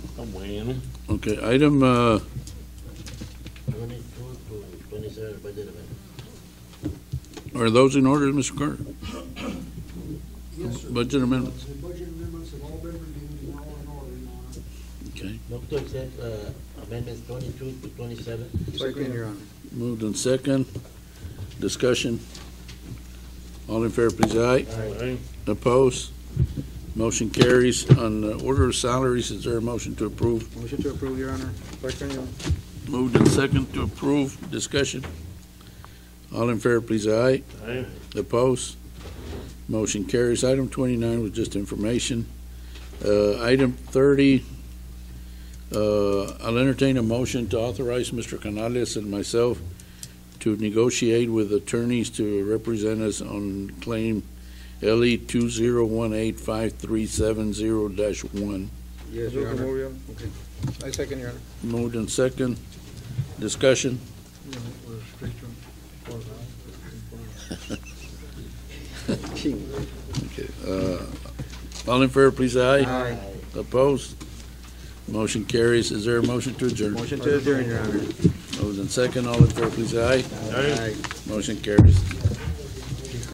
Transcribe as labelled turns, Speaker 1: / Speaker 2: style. Speaker 1: I'm weighing them.
Speaker 2: Okay, item, uh,
Speaker 1: Twenty-two to twenty-seven budget amendment.
Speaker 2: are those in order, Mr. Carter?
Speaker 3: Yes, sir.
Speaker 2: Budget amendments,
Speaker 3: The budget amendments have all been reviewed and are all in order, Your Honor.
Speaker 2: okay.
Speaker 1: Move to accept uh, amendments twenty-two to twenty-seven.
Speaker 4: Second, Your Honor.
Speaker 2: Moved in second. Discussion. All in favor, please, aye.
Speaker 1: Aye.
Speaker 2: Opposed? Motion carries. On the order of salaries, is there a motion to approve?
Speaker 4: Motion to approve, Your Honor. Second, Your Honor.
Speaker 2: Moved in second to approve. Discussion. All in favor, please, aye.
Speaker 1: Aye.
Speaker 2: Opposed? Motion carries. Item 29 was just information. Uh, Item 30, uh, I'll entertain a motion to authorize Mr. Canales and myself to negotiate with attorneys to represent us on claim E LE 20185370-1.
Speaker 4: Yes, Your Honor. Okay. I second, Your Honor.
Speaker 2: Moved and second. Discussion. Okay. uh, All in favor, please, aye.
Speaker 4: Aye.
Speaker 2: Opposed? Motion carries. Is there a motion to adjourn?
Speaker 4: Motion to adjourn, Your Honor.
Speaker 2: Moved and second. All in favor, please, aye.
Speaker 4: Aye.
Speaker 2: Motion carries.